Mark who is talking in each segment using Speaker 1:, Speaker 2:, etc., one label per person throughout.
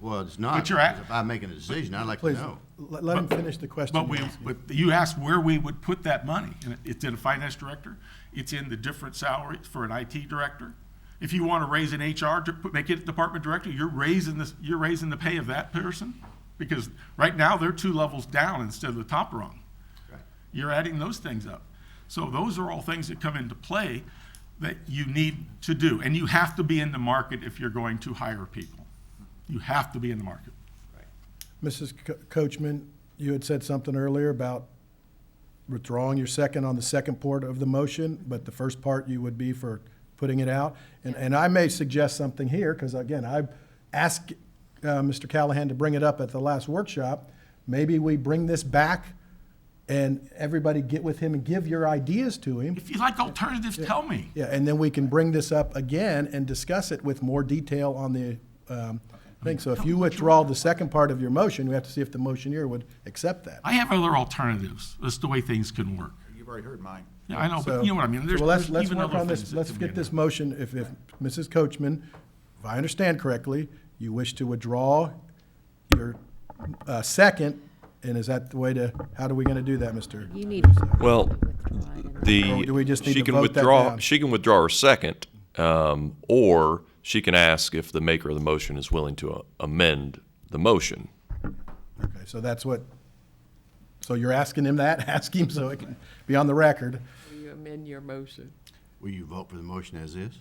Speaker 1: Well, it's not.
Speaker 2: But you're at-
Speaker 1: because If I'm making a decision, I'd like to
Speaker 3: Please,
Speaker 1: know.
Speaker 3: let let him finish the question.
Speaker 2: But we,
Speaker 3: he's asking.
Speaker 2: but you asked where we would put that money. And It's in a finance director. It's in the different salaries for an IT director. If you want to raise an HR, to put- make it department director, you're raising this, you're raising the pay of that person. Because right now, they're two levels down instead of the top rung. You're adding those things up. So those are all things that come into play that you need to do. And you have to be in the market if you're going to hire people. You have to be in the market.
Speaker 3: Mrs. Co- Coachman, you had said something earlier about withdrawing your second on the second part of the motion, but the first part you would be for putting it out. And, and I may suggest something here, because again, I asked uh, Mr. Callahan to bring it up at the last workshop. Maybe we bring this back and everybody get with him and give your ideas to him.
Speaker 2: If you like alternatives, tell me.
Speaker 3: Yeah, and then we can bring this up again and discuss it with more detail on the um, thing. So if you withdraw the second part of your motion, we have to see if the motioneer would accept that.
Speaker 2: I have other alternatives. That's the way things can work.
Speaker 4: You've already heard mine.
Speaker 2: Yeah, I know,
Speaker 3: So-
Speaker 2: but you know what I mean.
Speaker 3: so
Speaker 2: There's,
Speaker 3: let's-
Speaker 2: there's
Speaker 3: let's
Speaker 2: even
Speaker 3: work
Speaker 2: other
Speaker 3: on this.
Speaker 2: things that
Speaker 3: Let's
Speaker 2: can be
Speaker 3: get
Speaker 2: in
Speaker 3: this
Speaker 2: there.
Speaker 3: motion, if, if Mrs. Coachman, if I understand correctly, you wish to withdraw your uh, second, and is that the way to, how are we going to do that, Mr.?
Speaker 5: You need.
Speaker 6: Well,
Speaker 5: Withdraw it and-
Speaker 6: the,
Speaker 3: Or do we just need
Speaker 6: she
Speaker 3: to
Speaker 6: can
Speaker 3: vote that
Speaker 6: withdraw,
Speaker 3: down?
Speaker 6: she can withdraw her second, um, or she can ask if the maker of the motion is willing to uh, amend the motion.
Speaker 3: Okay, so that's what, so you're asking him that? Ask him so it can be on the record.
Speaker 7: You amend your motion.
Speaker 1: Will you vote for the motion as is?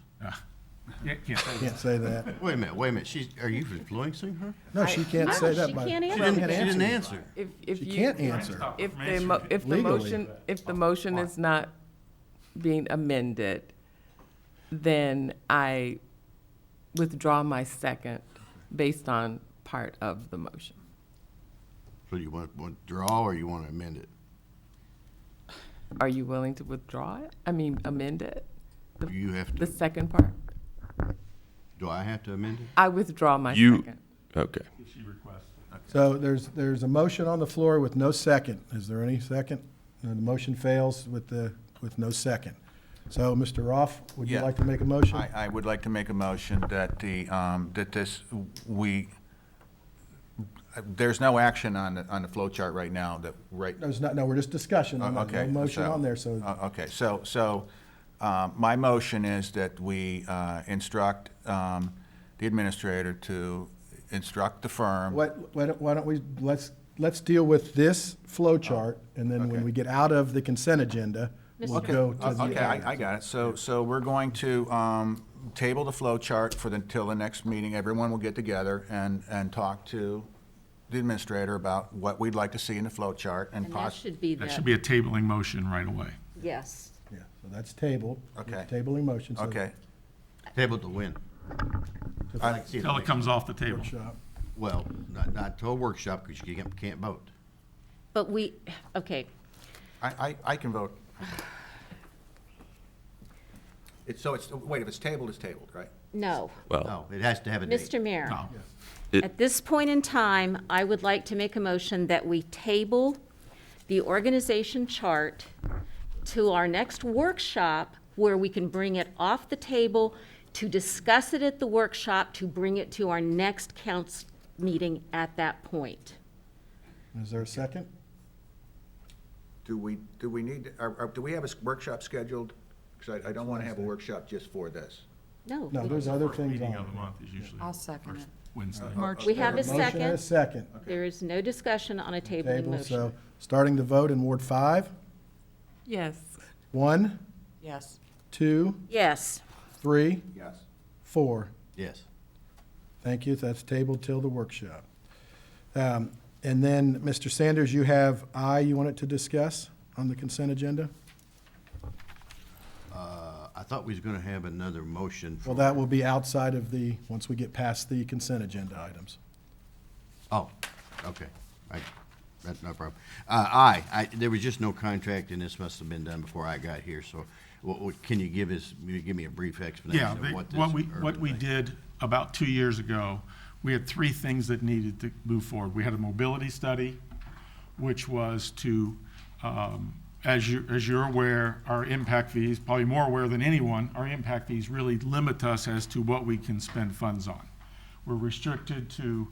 Speaker 2: Yeah, can't say that.
Speaker 3: Can't say that.
Speaker 1: Wait a minute, wait a minute. She's, are you influencing her?
Speaker 3: No, she can't
Speaker 5: No,
Speaker 3: say that.
Speaker 5: she
Speaker 3: by-
Speaker 5: can't
Speaker 1: She
Speaker 5: Well,
Speaker 1: didn't,
Speaker 3: can't
Speaker 1: she didn't
Speaker 3: answer.
Speaker 1: answer.
Speaker 7: If, if
Speaker 3: She
Speaker 7: you.
Speaker 3: can't answer.
Speaker 7: If the, mo- if the
Speaker 3: Legally.
Speaker 7: motion, if the motion is not being amended, then I withdraw my second based on part of the motion.
Speaker 1: So you want to withdraw or you want to amend it?
Speaker 7: Are you willing to withdraw it? I mean, amend it? The-
Speaker 1: You have
Speaker 7: The
Speaker 1: to,
Speaker 7: second part?
Speaker 1: do I have to amend it?
Speaker 7: I withdraw my
Speaker 6: You,
Speaker 7: second.
Speaker 6: okay.
Speaker 3: So there's, there's a motion on the floor with no second. Is there any second? No, The motion fails with the, with no second. So, Mr. Roth, would you
Speaker 4: Yeah.
Speaker 3: like to make a motion?
Speaker 4: I, I would like to make a motion that the, um, that this, we, there's no action on, the on the flow chart right now that, right,
Speaker 3: There's not, no, we're just discussion. on that.
Speaker 4: Okay.
Speaker 3: No motion
Speaker 4: so-
Speaker 3: on there, so
Speaker 4: Uh, Okay, so, so uh, my motion is that we uh, instruct um, the administrator to instruct the firm.
Speaker 3: what, why don't- why don't we, let's, let's deal with this flow chart, and then when
Speaker 4: Uh, Okay.
Speaker 3: we get out of the consent agenda, we'll
Speaker 4: Okay,
Speaker 3: go to the.
Speaker 4: Uh, Okay, I, I got it. So, so we're going to um, table the flow chart for the, till the next meeting. Everyone will get together and, and talk to the administrator about what we'd like to see in the flow chart and
Speaker 5: And that
Speaker 4: poss-
Speaker 5: should be
Speaker 2: That
Speaker 5: the,
Speaker 2: should be a tabling motion right away.
Speaker 5: yes.
Speaker 3: Yeah, so that's tabled.
Speaker 4: Okay.
Speaker 3: Tabling motion. so-
Speaker 4: Okay,
Speaker 1: Table to win. I'd like to see it
Speaker 2: Till it comes off the table.
Speaker 3: Workshop.
Speaker 1: Well, not, not to a workshop because you can't, can't vote.
Speaker 5: But we, okay,
Speaker 4: I, I, I can vote. It's, so it's, wait, if it's tabled, it's tabled, right?
Speaker 5: no.
Speaker 6: Well,
Speaker 1: No, it has to have a date.
Speaker 5: Mr. Mayor.
Speaker 2: No.
Speaker 6: It-
Speaker 5: At this point in time, I would like to make a motion that we table the organization chart to our next workshop where we can bring it off the table to discuss it at the workshop, to bring it to our next council meeting at that point.
Speaker 3: Is there a second?
Speaker 4: Do we, do we need, are, are- do we have a s- workshop scheduled? Because I, I don't want to have a workshop just for this.
Speaker 5: No.
Speaker 3: No,
Speaker 5: we-
Speaker 3: there's other things on.
Speaker 2: Meeting of
Speaker 3: there.
Speaker 2: the month is usually
Speaker 7: I'll second it.
Speaker 2: Wednesday.
Speaker 5: We have a
Speaker 3: Motion and a
Speaker 5: second.
Speaker 3: second.
Speaker 5: There is no discussion on a tabling
Speaker 3: Table, so,
Speaker 5: motion.
Speaker 3: starting the vote in Ward five,
Speaker 7: Yes.
Speaker 3: one,
Speaker 7: Yes.
Speaker 3: two,
Speaker 5: Yes.
Speaker 3: three,
Speaker 4: Yes.
Speaker 3: four.
Speaker 1: Yes.
Speaker 3: Thank you, that's tabled till the workshop. Um, And then, Mr. Sanders, you have I you wanted to discuss on the consent agenda?
Speaker 1: Uh, I thought we was going to have another motion. for-
Speaker 3: Well, that will be outside of the, once we get past the consent agenda items.
Speaker 1: Oh, okay. I, that's no problem. Uh, aye, I, there was just no contract and this must have been done before I got here, so what, what, can you give us, you give me a brief explanation
Speaker 2: Yeah,
Speaker 1: of
Speaker 2: they-
Speaker 1: what this?
Speaker 2: what we, what
Speaker 1: urban
Speaker 2: we
Speaker 1: thing-
Speaker 2: did about two years ago, we had three things that needed to move forward. We had a mobility study, which was to, um, as you, as you're aware, our impact fees, probably more aware than anyone, our impact fees really limit us as to what we can spend funds on. We're restricted to